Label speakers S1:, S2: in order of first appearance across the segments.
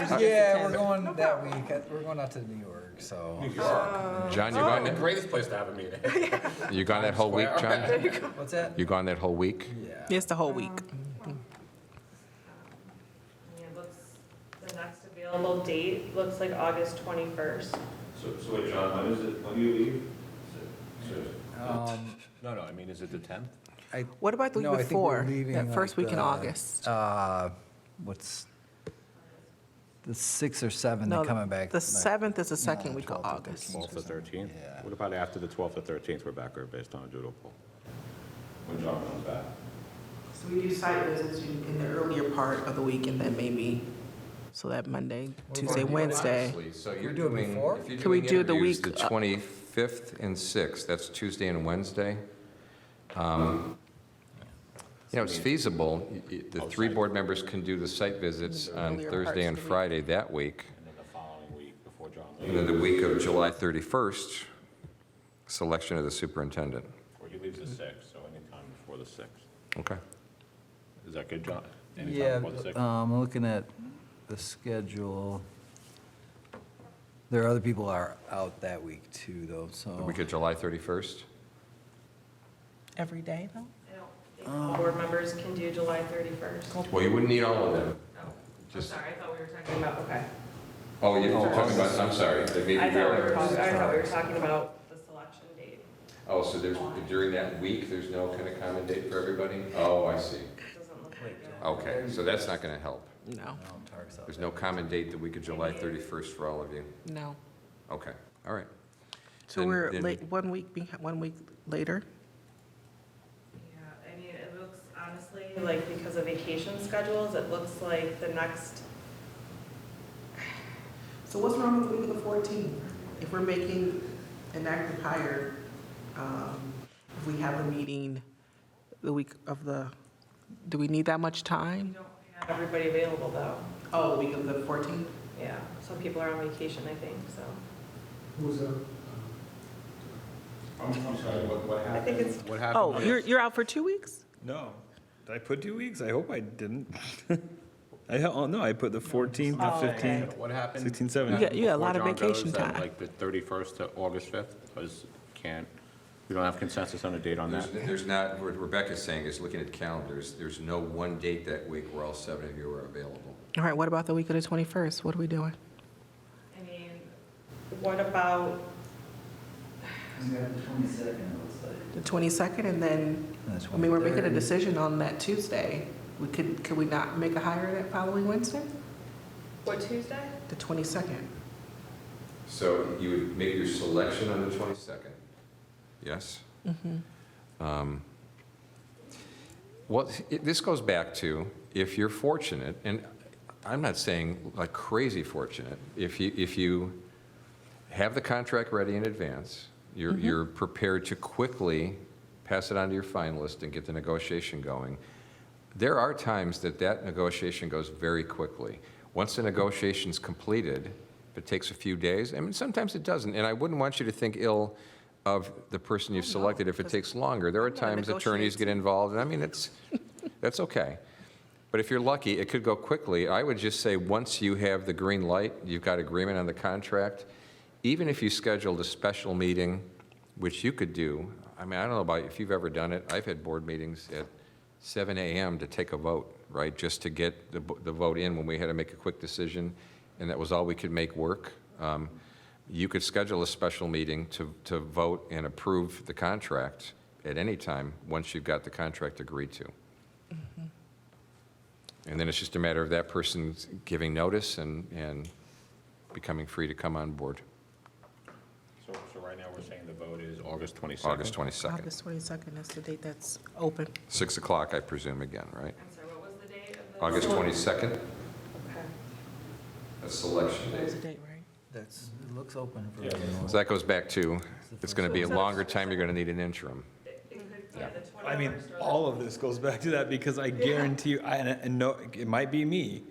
S1: Thursday.
S2: Yeah, we're going that week. Uh, We're going out to New York, so.
S3: John, you gone,
S1: Oh. The
S3: that-
S1: greatest place to have a meeting.
S3: you gone that whole week, John?
S2: What's that?
S3: You gone that whole week?
S2: Yeah.
S4: It's the whole week.
S5: Yeah, looks, the next available date looks like August twenty-first.
S6: So, so wait, John, when is it, when do you leave? So- so-
S2: Um,
S1: No, no, I mean, is it the 10th?
S2: I,
S4: What about the
S2: No, I
S4: week
S2: think we're
S4: before?
S2: leaving,
S4: That first
S2: like,
S4: week in
S2: the-
S4: August?
S2: uh, what's, the sixth or seventh, they're
S4: No,
S2: coming back.
S4: The
S2: like-
S4: seventh is the
S2: no,
S4: second week of
S2: 12th or
S4: August.
S7: 12th to 13th?
S2: Yeah.
S7: What about after the 12th to 13th, we're back here based on doodle poll?
S6: When John comes back.
S8: So we do site visits in in the earlier part of the week and then maybe
S4: So that Monday,
S2: about
S4: Tuesday,
S2: you?
S4: Wednesday.
S3: So
S2: we
S3: you're
S2: do it
S3: doing,
S2: before?
S3: if you're
S4: Can we
S3: doing
S4: do the
S3: interviews
S4: week,
S3: the
S4: uh,
S3: 25th and 6th, that's Tuesday and Wednesday. Um, You know, it's feasible, Y- y- the three board members can do the site visits on
S4: Earlier
S3: Thursday
S4: parts
S3: and
S4: of the week.
S3: Friday that week.
S7: And then the following week before John
S3: And then the week of July 31st, selection of the superintendent.
S7: Or he leaves the 6th, so anytime before the 6th.
S3: Okay.
S7: Is that good, John?
S2: Yeah,
S7: Anytime before the 6th?
S2: um, looking at the schedule, there are other people are out that week too, though,
S3: The
S2: so.
S1: Oh.
S3: week of July 31st?
S4: Every day, though?
S5: I don't think all board members can do July thirty-first. Oh,
S3: Well, you wouldn't need all of them.
S5: I'm
S3: Just-
S5: Oh, sorry, I thought we were talking about, okay.
S3: Oh, you're talking about, I'm sorry, that maybe
S5: I
S3: we
S5: thought we were
S3: are.
S5: talking, I thought we were talking about the selection date.
S3: Oh, so there's, during that week, there's no kind of common date for everybody? Oh, I see.
S5: It doesn't look like it.
S3: Okay, so that's not going to help.
S4: No,
S2: No, Tarek's Um, out
S3: There's no common date the week of July 31st for all of you.
S4: no.
S3: Okay, all right.
S4: So
S3: Then-
S4: we're
S3: then-
S4: late, one week, beh- one week later?
S5: Yeah, I mean, it looks honestly, like, because of vacation schedules, it looks like the next,
S8: So what's wrong with the week of the fourteenth? If we're making an active hire, um, if we have a meeting,
S4: Meeting the week of the, do we need that much
S5: we
S4: time?
S5: don't have everybody available though.
S8: oh, week of the fourteenth?
S5: Yeah, some people are on vacation, I think, so.
S6: I'm, I'm sorry, what, what
S5: I
S6: happened?
S5: think it's,
S7: What
S4: Oh,
S7: happened?
S4: you're, you're out for two weeks?
S9: No. Did I put two weeks? I hope I didn't. I, oh, no, I put the 14th,
S5: Oh,
S9: the
S5: okay.
S9: 15th,
S1: What happened?
S9: 16th,
S4: You
S9: 17th.
S4: got, you got a lot of
S7: Before John goes,
S4: vacation
S7: that,
S4: time.
S7: Like the 31st to August 5th, because can't, we don't have consensus on a date on that.
S3: There's there's not, what Rebecca's saying is looking at calendars, there's no one date that week where all seven of you are available.
S4: All right, what about the week of the twenty-first? What are we doing?
S5: I mean, what about
S8: The twenty-second, and then,
S2: That's
S8: I mean, we're making a
S2: 23rd.
S8: decision on that Tuesday. We could, could we not make a hire that following Wednesday,
S5: What, Tuesday?
S8: the twenty-second?
S3: So you would make your selection on the 22nd? Yes? Um, Well, it- this goes back to, if you're fortunate, and I'm not saying like crazy fortunate, if you, if you have the contract ready in advance, you're,
S4: Mm-hmm.
S3: you're prepared to quickly pass it on to your finalist and get the negotiation going, there are times that that negotiation goes very quickly. Once the negotiation's completed, if it takes a few days, I mean, sometimes it doesn't, and I wouldn't want you to think ill of the person you've
S4: Oh, no,
S3: selected if it
S4: because
S3: takes longer. There are
S4: I'm gonna
S3: times attorneys
S4: negotiate.
S3: get involved, and I mean, it's, that's okay. But if you're lucky, it could go quickly. I would just say, once you have the green light, you've got agreement on the contract, even if you scheduled a special meeting, which you could do, I mean, I don't know about, if you've ever done it, I've had board meetings at 7 AM to take a vote, right? Just to get the, bo- the vote in when we had to make a quick decision, and that was all we could make work. Um, You could schedule a special meeting to, to vote and approve the contract at any time, once you've got the contract agreed to. And then it's just a matter of that person giving notice and, and becoming free to come on board,
S7: So, so right now, we're saying the vote is August 22nd?
S3: August 22nd.
S4: August twenty-second, that's the date that's open.
S3: 6 o'clock, I presume, again, right?
S5: I'm sorry, what was the date of the?
S3: August 22nd,
S5: Okay.
S3: that's selection
S4: That was
S3: date.
S4: the date, right?
S2: That's, it looks open for
S6: Yeah.
S2: everyone.
S3: So that goes back to, it's going to be a longer time, you're going to need an interim.
S5: It it could, yeah, the twenty-first.
S9: I mean, all of this goes back to that because I guarantee you, I, and, and no, it might be me.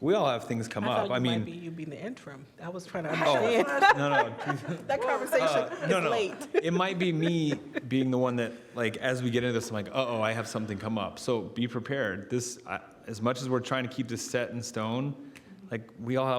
S9: We all have things come
S4: thought
S9: up. I
S4: you might be-
S9: mean, Oh.
S4: You being the interim. I was trying to understand.
S9: no, no,
S4: That conversation
S9: Uh, no,
S4: is
S9: no.
S4: late.
S9: It might be me being the one that, like, as we get into this, I'm like, uh-oh, I have something come up. So be prepared. This, I, as much as we're trying to keep this set in stone, like, we all have